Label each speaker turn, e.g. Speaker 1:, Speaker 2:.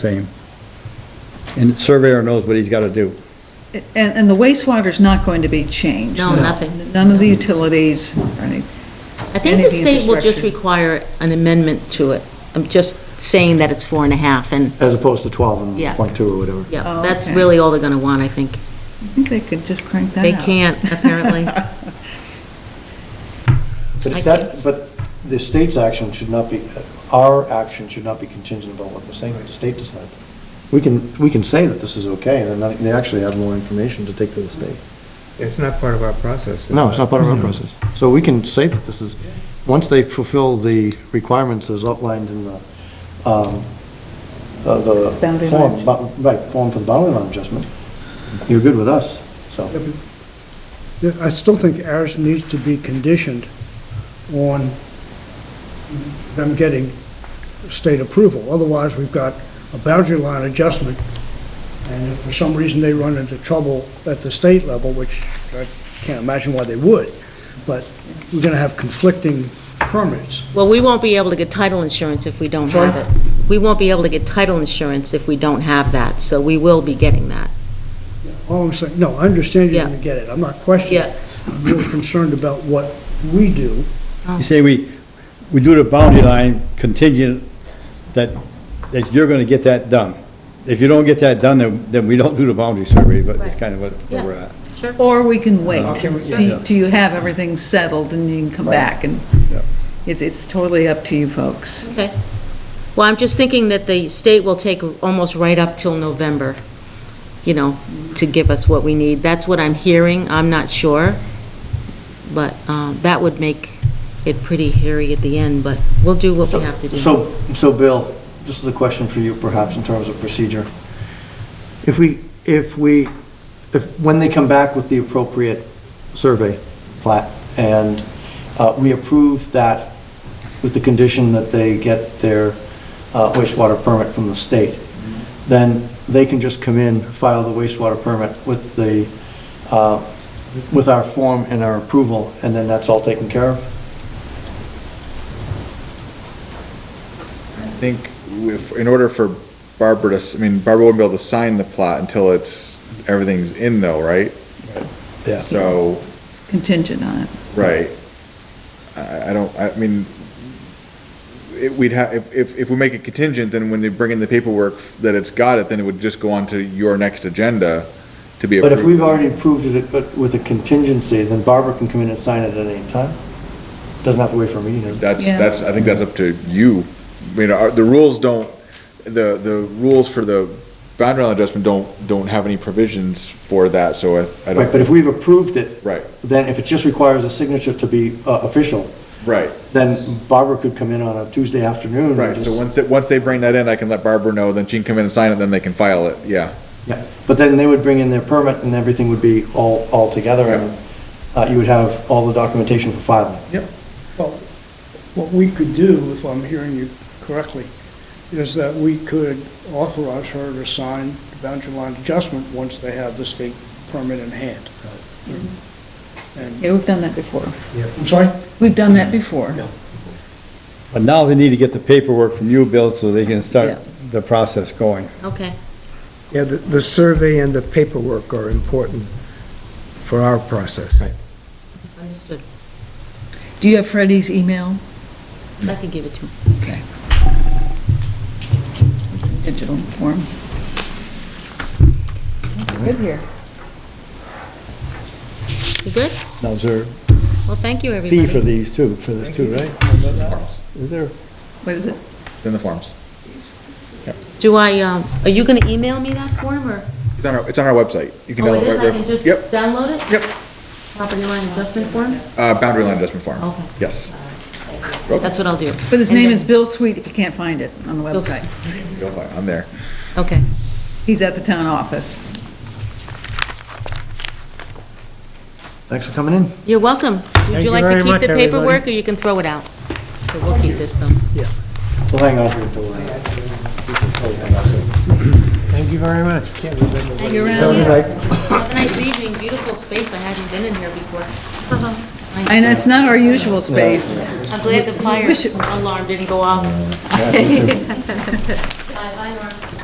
Speaker 1: same. And the surveyor knows what he's got to do.
Speaker 2: And, and the wastewater's not going to be changed?
Speaker 3: No, nothing.
Speaker 2: None of the utilities or anything?
Speaker 3: I think
Speaker 2: Any
Speaker 3: the
Speaker 2: of the
Speaker 3: state will just
Speaker 2: infrastructure.
Speaker 3: require an amendment to it. I'm just saying that it's four and a half, and,
Speaker 4: As opposed to 12
Speaker 3: Yeah.
Speaker 4: and point two or whatever.
Speaker 3: yeah,
Speaker 2: Oh,
Speaker 3: that's
Speaker 2: okay.
Speaker 3: really all they're gonna want, I think.
Speaker 2: I think they could just crank that
Speaker 3: They
Speaker 2: out.
Speaker 3: can't, apparently.
Speaker 4: But
Speaker 3: I
Speaker 4: if that, but the state's action should not be, our action should not be contingent upon what the state, the state decides. We can, we can say that this is okay, and then they actually have more information to take to the state.
Speaker 5: It's not part of our process.
Speaker 4: No, it's not part of our process. So we can say that this is, once they fulfill the requirements as outlined in the, um, uh, the.
Speaker 2: Boundary
Speaker 4: form,
Speaker 2: line.
Speaker 4: bu- Right, form for the boundary line adjustment, you're good with us, so.
Speaker 6: Yeah, I still think ours needs to be conditioned on them getting state approval. Otherwise, we've got a boundary line adjustment, and if for some reason they run into trouble at the state level, which I can't imagine why they would, but we're going to have conflicting permits.
Speaker 3: Well, we won't be able to get title insurance if we don't have it. We won't be able to get title insurance if we don't have that, so we will be getting that.
Speaker 6: All I'm saying, no, I understand you're
Speaker 3: Yeah.
Speaker 6: going to get it. I'm not questioning.
Speaker 3: Yeah.
Speaker 6: it. I'm really concerned about what we do.
Speaker 1: You say we, we do the boundary line contingent that, that you're going to get that done. If you don't get that done, then, then we don't do the boundary survey, but it's kind of what where we're at.
Speaker 2: Or we can wait
Speaker 1: Okay, yeah.
Speaker 2: till till you have everything settled and you can come back and
Speaker 1: Yeah.
Speaker 2: it's, it's totally up to you folks.
Speaker 3: Okay. Well, I'm just thinking that the state will take almost right up till November, you know, to give us what we need. That's what I'm hearing, I'm not sure, but um, that would make it pretty hairy at the end, but we'll do what we have to do.
Speaker 4: So, so Bill, this is a question for you perhaps in terms of procedure. If we, if we, if, when they come back with the appropriate survey plat and uh, we approve that with the condition that they get their uh, wastewater permit from the state, then they can just come in, file the wastewater permit with the, uh, with our form and our approval, and then that's all taken care of?
Speaker 7: I think if, in order for Barbara to, s- I mean, Barbara wouldn't be able to sign the plot until it's, everything's in though, right?
Speaker 4: Yeah.
Speaker 7: So,
Speaker 2: It's contingent on it.
Speaker 7: right. I, I don't, I mean, it, we'd have, if- if, if we make it contingent, then when they bring in the paperwork that it's got it, then it would just go on to your next agenda to be
Speaker 4: But
Speaker 7: approved.
Speaker 4: if we've already approved it uh, with a contingency, then Barbara can come in and sign it at any time? Doesn't have to wait for a meeting.
Speaker 7: That's,
Speaker 2: Yeah.
Speaker 7: that's, I think that's up to you. I mean, our, the rules don't, the, the rules for the boundary line adjustment don't, don't have any provisions for that, so I, I don't.
Speaker 4: Right, but if we've approved it.
Speaker 7: Right.
Speaker 4: Then if it just requires a signature to be uh, official,
Speaker 7: Right.
Speaker 4: then Barbara could come in on a Tuesday afternoon. and
Speaker 7: Right, so
Speaker 4: just-
Speaker 7: once, they- once they bring that in, I can let Barbara know, then she can come in and sign it, then they can file it, yeah.
Speaker 4: Yeah, but then they would bring in their permit and everything would be all, all together and uh, you would have all the documentation for filing.
Speaker 6: What we could do, if I'm hearing you correctly, is that we could authorize her to sign the boundary line adjustment once they have the state permit in hand. And,
Speaker 2: Yeah, we've done that before.
Speaker 6: I'm sorry?
Speaker 2: We've done that before.
Speaker 1: But now they need to get the paperwork from you, Bill, so they can start the process going.
Speaker 3: Okay,
Speaker 5: Yeah, the, the survey and the paperwork are important for our process.
Speaker 3: understood.
Speaker 2: Do you have Freddie's email?
Speaker 3: I can give it to him.
Speaker 2: Okay. Digital form. Good here.
Speaker 3: You good?
Speaker 4: Now, is there
Speaker 3: Well, thank you, everybody.
Speaker 4: fee for these too, for this too, right? Is there?
Speaker 2: What is it?
Speaker 7: It's in the forms.
Speaker 3: Do I, um, are you gonna email me that form, or?
Speaker 7: It's on our, it's on our website. You can
Speaker 3: Oh,
Speaker 7: download
Speaker 3: it is, I
Speaker 7: Barbara-
Speaker 3: can just
Speaker 7: Yep,
Speaker 3: download it?
Speaker 7: Yep.
Speaker 3: Property line adjustment form?
Speaker 7: uh, boundary line adjustment form.
Speaker 3: Okay. Uh,
Speaker 7: Yes,
Speaker 3: That's what I'll do.
Speaker 2: But his
Speaker 3: And
Speaker 2: name
Speaker 3: then-
Speaker 2: is Bill Sweet, if you can't find it on the
Speaker 3: Bill S-
Speaker 2: website.
Speaker 7: you'll find, I'm there.
Speaker 3: Okay.
Speaker 2: He's at the town office.
Speaker 4: Thanks for coming in.
Speaker 3: You're welcome. Would
Speaker 8: Thank
Speaker 3: you
Speaker 8: you
Speaker 3: like
Speaker 8: very
Speaker 3: to keep
Speaker 8: much,
Speaker 3: the
Speaker 8: everybody.
Speaker 3: paperwork, or you can throw it out? So We'll keep this, though.
Speaker 4: We'll hang on here until. uh,
Speaker 8: Thank you very much.
Speaker 2: You around?
Speaker 3: Have a nice evening, beautiful space, I haven't been in here before. It's nice.
Speaker 2: And it's not our usual space.
Speaker 3: I'm glad the fire
Speaker 2: Wish it-
Speaker 3: alarm didn't go off.